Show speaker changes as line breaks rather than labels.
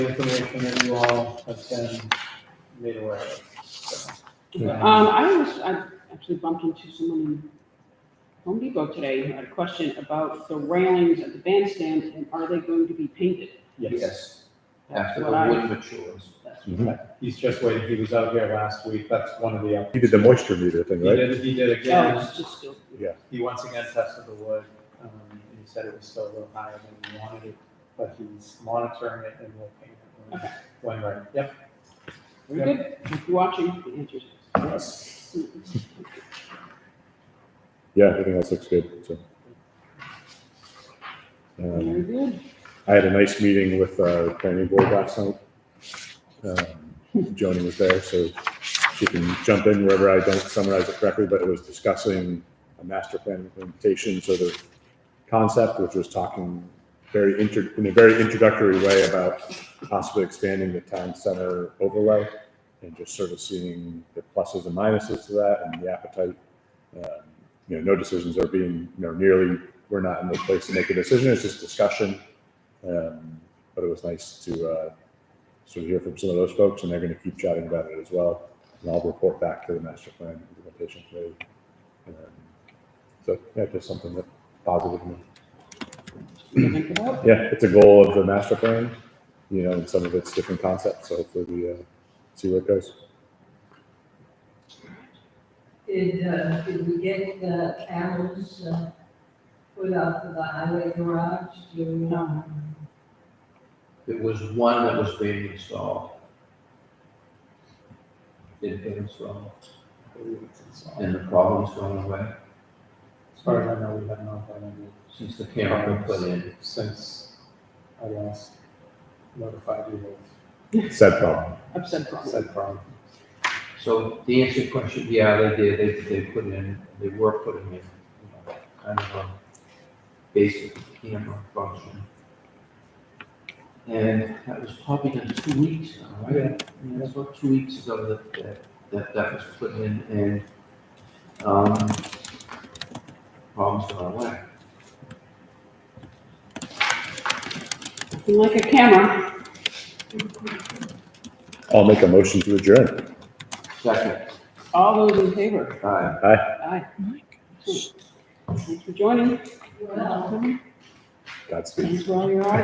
the information that you all have been made aware of. so, um,
Um, I was, I actually bumped into someone in Home Depot today who had a question about the railings at the bandstand and are they going to be painted?
Yes,
Yes, after the
What I-
wood matures.
That's-
he's just waiting, he was out here last week, that's one of the,
He did the moisture meter thing,
he
right?
did, he did
Oh,
again,
it's just still.
he once again tested the wood, um, and he said it was still a little higher than he wanted it, but he's monitoring it and will paint it when-
Okay.
when ready, yep.
Very good. If you're watching, the answers.
Yes.
Yeah, everything else looks good, so. Um,
Very good.
I had a nice meeting with our planning board last night. Um, Joni was there, so she can jump in wherever I don't summarize it correctly, but it was discussing a master plan implementation, so the concept, which was talking very inter, in a very introductory way about possibly expanding the town center overlay and just sort of seeing the pluses and minuses to that and the appetite. Um, You know, no decisions are being, you know, nearly, we're not in the place to make a decision, it's just discussion. Um, but it was nice to uh, sort of hear from some of those folks, and they're going to keep chatting about it as well. And I'll report back to the master plan implementation committee. Um, so yeah, just something that positive. me.
Think about it.
Yeah, it's a goal of the master plan, you know, and some of its different concepts. So hopefully we uh, see where it goes.
Did, uh, did we get the cameras, uh, put up for the highway garage to, um,
There was one that was being installed. Did get installed,
I believe it's installed.
and the problem's gone away
As far as I know, we have not had any
since the camera was put in.
since I last notified you
Sad problem.
Upset
of
problem.
said problem.
So the answer to your question, yeah, they did, they, they put in, they were putting in, you know, kind of a basic camera function. And that was probably done two weeks now, right?
Yeah.
Yeah, that's about two weeks ago that, that, that, that was put in and, um, problems gone away.
Looking Like a camera.
I'll make a motion to adjourn.
Second,
All those in favor?
uh,
Aye. Thanks for joining.
well,
Godspeed.
Thanks for all your art.